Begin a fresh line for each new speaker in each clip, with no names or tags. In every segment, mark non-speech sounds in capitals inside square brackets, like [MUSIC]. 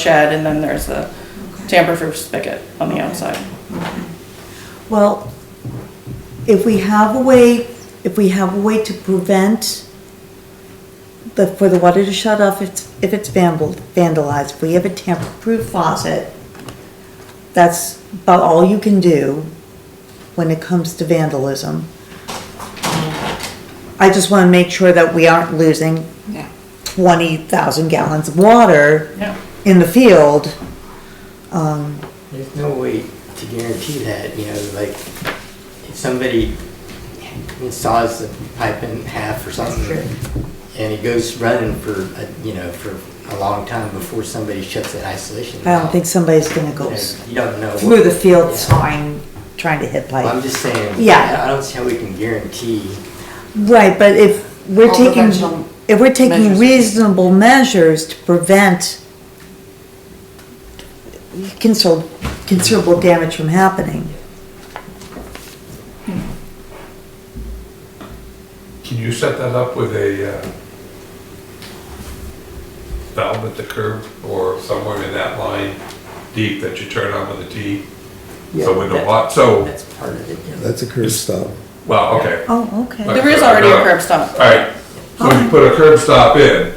shed, and then there's the tamper-proof spigot on the outside.
Well, if we have a way, if we have a way to prevent the, for the water to shut off, if, it's- if it's vandal- vandalized, if we have a tamper-proof faucet, that's about all you can do when it comes to vandalism. I just wanna make sure that we aren't losing
Yeah.
twenty thousand gallons of water
Yeah.
in the field. Um,
There's no way to guarantee that, you know, like, if somebody saws the pipe in half or something, and it goes running for, a- you know, for a long time before somebody shuts that isolation.
I don't
valve,
think somebody's gonna
you
go
know, You don't know.
through the
what-
field
Yeah.
sawing, trying to hit
Well, I'm
pipe.
just saying,
Yeah.
I don't see how we can guarantee,
Right, but if we're
All
taking,
prevention
if we're taking
measures.
reasonable measures to prevent considerable, considerable damage from happening.
Can you set that up with a uh, valve at the curb or somewhere in that line deep that you turn on with a T? So when the
Yeah.
wa, so,
that's part of it, you know.
That's a curb stop.
well, okay,
Oh, okay.
There is already a curb stop.
alright. So when you put a curb stop in,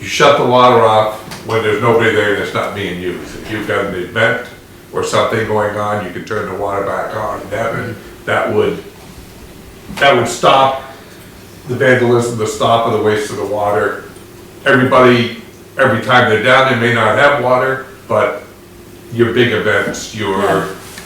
you shut the water off when there's nobody there and it's not being used. If you've got an event or something going on, you can turn the water back on. That would, that would, that would stop the vandalism, the stop of the waste of the water. Everybody, every time they're down, they may not have water, but your big events, your,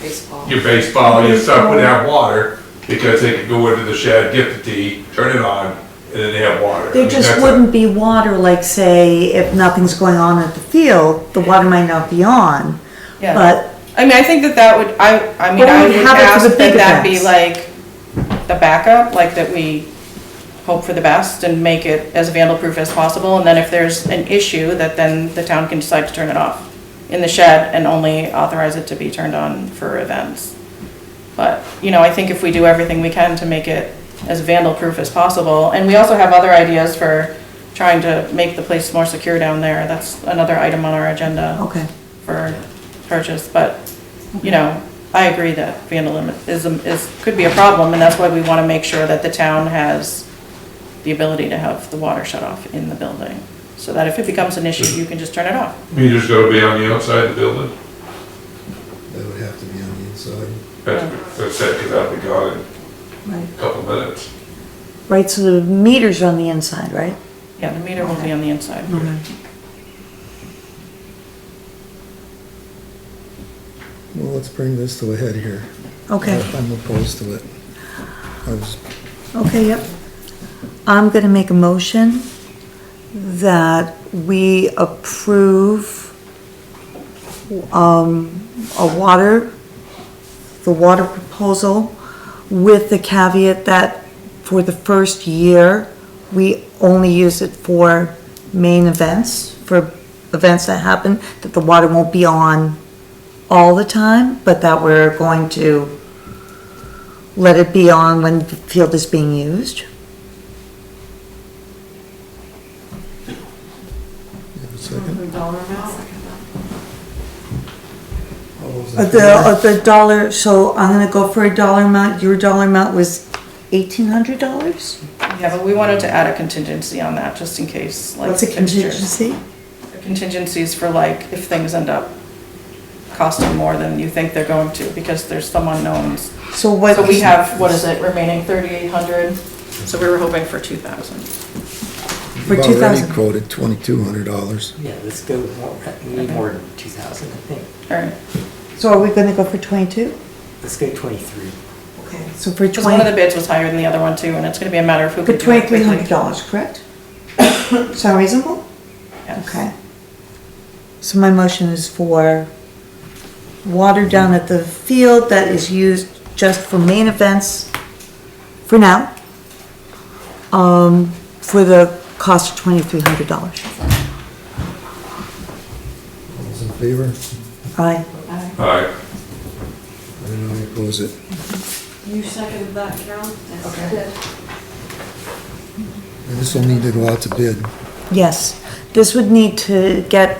baseball.
your baseball, your stuff would have water, because they could go into the shed, get the tea, turn it on, and then they have water. I
There
mean,
just
that's a-
wouldn't be water, like say, if nothing's going on at the field, the water might not be on.
Yeah.
But,
I mean, I think that that would, I, I mean,
But we
I
would
would
have it for
ask
the
that
big
that be
events.
like the backup, like that we hope for the best and make it as vandal-proof as possible, and then if there's an issue, that then the town can decide to turn it off in the shed and only authorize it to be turned on for events. But, you know, I think if we do everything we can to make it as vandal-proof as possible, and we also have other ideas for trying to make the place more secure down there, that's another item on our agenda
okay.
for purchase, but, you know, I agree that vandalism is, could be a problem, and that's why we want to make sure that the town has the ability to have the water shut off in the building, so that if it becomes an issue, you can just turn it off.
Meters gotta be on the outside of the building,
That would have to be on the inside.
that's, that's it, cause I'll be gone in
Right.
a couple minutes.
Right, so the meters are on the inside, right?
Yeah, the meter will be on the inside.
Mm-hmm.
Well, let's bring this to a head here.
Okay,
I'm opposed to it. I was,
okay, yep. I'm gonna make a motion that we approve um, a water, the water proposal with the caveat that for the first year, we only use it for main events, for events that happen, that the water won't be on all the time, but that we're going to let it be on when the field is being used.
you have a second?
Dollar amount?
All those in
Uh, The,
favor?
uh, the dollar, so I'm gonna go for a dollar amount, your dollar amount was eighteen hundred dollars?
Yeah, but we wanted to add a contingency on that, just in case, like.
What's a
fixtures.
contingency?
Contingencies for like, if things end up costing more than you think they're going to, because there's some unknowns.
So what?
So we have, what is it, remaining thirty-eight hundred, so we were hoping for two thousand.
For
You've
2,000.
already quoted twenty-two hundred dollars.
Yeah, let's go, more- we need more than two thousand, I think.
All right.
So are we gonna go for twenty-two?
Let's go twenty-three.
Okay. So for
Because one of the
twenty,
bids was higher than the other one too, and it's gonna be a matter of who
for
can do it
twenty-three
quickly.
hundred dollars, correct? [COUGHS] Sound reasonable?
Yes.
Okay. So my motion is for water down at the field that is used just for main events for now. Um, for the cost of twenty-three hundred dollars.
All those in favor?
Aye.
Alright,
And I oppose it.
You seconded that, Carol? Okay.
And this will need to go out to bid.
Yes. This would need to get